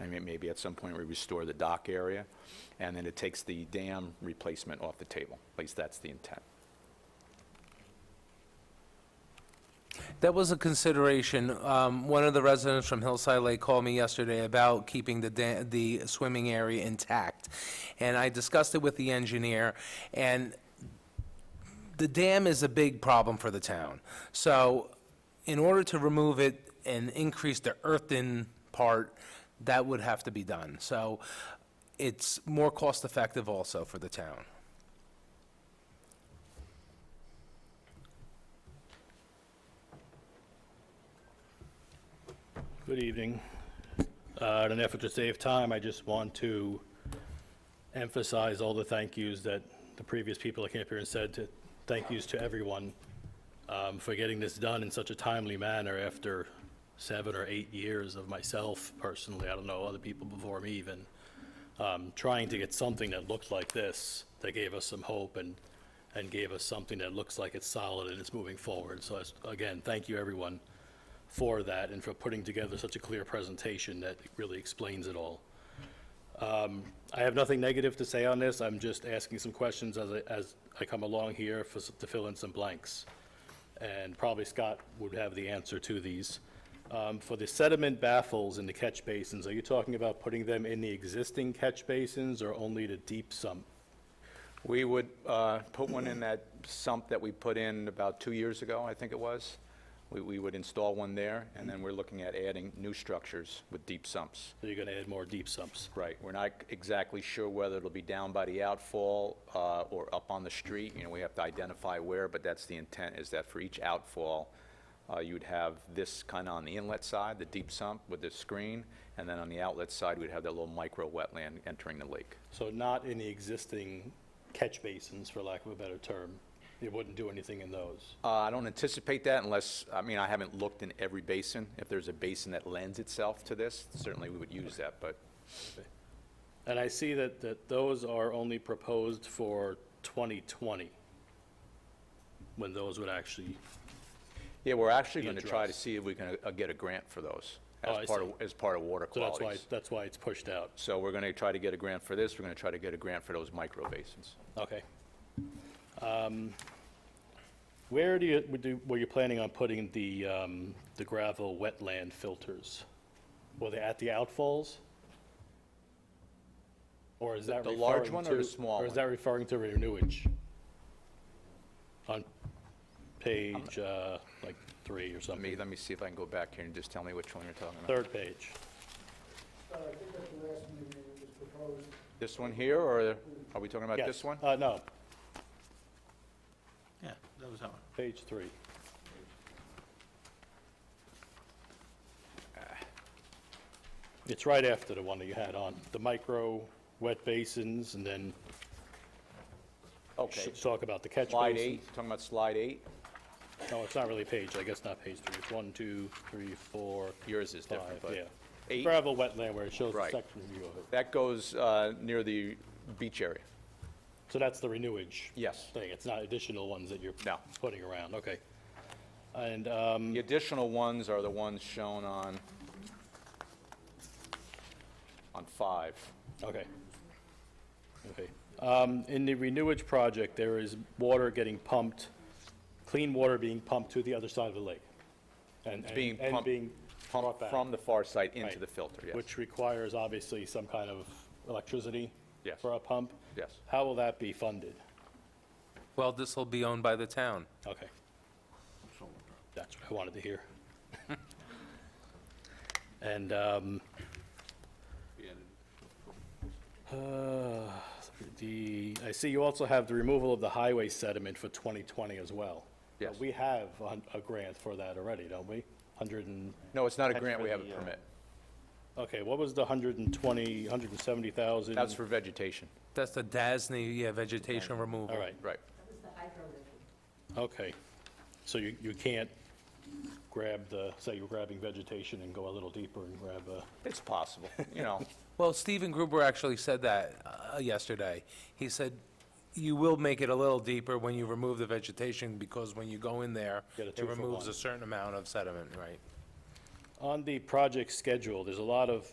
I mean, maybe at some point we restore the dock area, and then it takes the dam replacement off the table. At least that's the intent. That was a consideration. Um, One of the residents from Hillside Lake called me yesterday about keeping the, da- the swimming area intact. And I discussed it with the engineer, and the dam is a big problem for the town. So in order to remove it and increase the earthen part, that would have to be done. So it's more cost-effective also for the town. Good evening. Uh, In an effort to save time, I just want to emphasize all the thank yous that the previous people that came up here and said to, thank yous to everyone um, for getting this done in such a timely manner after seven or eight years of myself personally, I don't know, other people before me even, um, trying to get something that looked like this, that gave us some hope and, and gave us something that looks like it's solid and it's moving forward. So that's- again, thank you, everyone for that and for putting together such a clear presentation that really explains it all. Um, I have nothing negative to say on this. I'm just asking some questions as I, as I come along here for, s- to fill in some blanks. And probably Scott would have the answer to these. Um, For the sediment baffles in the catch basins, are you talking about putting them in the existing catch basins or only the deep sump? We would uh, put one in that sump that we put in about two years ago, I think it was. We- We would install one there, and then we're looking at adding new structures with deep sumps. So you're going to add more deep sumps? Right, we're not exactly sure whether it'll be down by the outfall uh, or up on the street. You know, we have to identify where, but that's the intent, is that for each outfall, uh, you'd have this kind of on the inlet side, the deep sump with the screen, and then on the outlet side, we'd have that little micro wetland entering the lake. So not in the existing catch basins, for lack of a better term? It wouldn't do anything in those? Uh, I don't anticipate that unless, I mean, I haven't looked in every basin. If there's a basin that lends itself to this, certainly we would use that, but And I see that, that those are only proposed for 2020, when those would actually, yeah, we're actually going to Be try to addressed. see if we can uh, get a grant for those Oh, I as part of, see. as part of water so that's why, qualities. that's why it's pushed out. So we're going to try to get a grant for this, we're going to try to get a grant for those micro basins. Okay. Um, Where do you, would you- were you planning on putting the, um, the gravel wetland filters? Were they at the outfalls? Or is that The referring to? large one or the small Or is one? that referring to renewage? On page, uh, like, three Let or me, something, let me see if I can go back here and just tell me which one you're talking about. third page. Uh, I think at the last meeting, it was proposed This one here, or are we talking about Yes. this one? Uh, no, Yeah, that was that one. page three. It's right after the one that you had on, the micro wet basins, and then Okay, s- talk about the catch basins. slide eight, talking about slide eight? No, it's not really page, I guess not page three, it's one, two, three, four, Yours is different, five, but. yeah. Eight, Gravel wetland where it shows the Right. section view of it. that goes uh, near the beach area. So that's the renewage? Yes. Thing, it's not additional ones that you're No. putting around, okay. And, um, The additional ones are the ones shown on, on five. Okay. Okay. Um, In the renewage project, there is water getting pumped, clean water being pumped to the other side of the lake. and It's being and- pumped, And being brought pumped back. from the far side into Right. the filter, yes. Which requires obviously some kind of electricity. Yes. For a pump. Yes. How will that be funded? Well, this will be owned by the town. Okay. That's what I wanted to hear. And, um, uh, the, I see you also have the removal of the highway sediment for 2020 as well. Yes. We have a, a grant for that already, don't we? 100 and, No, it's not a That's grant, for we have a the, uh, permit. okay, what was the 120, 170,000? That's for vegetation, That's the DASNY, yeah, vegetation removal. All right, right. okay. So you, you can't grab the, say you're grabbing vegetation and go a little deeper and grab a. It's possible, you know. Well, Stephen Gruber actually said that uh, yesterday. He said, you will make it a little deeper when you remove the vegetation, because when you go in there, Get a it two-foot removes line. a certain amount of sediment, right? On the project schedule, there's a lot of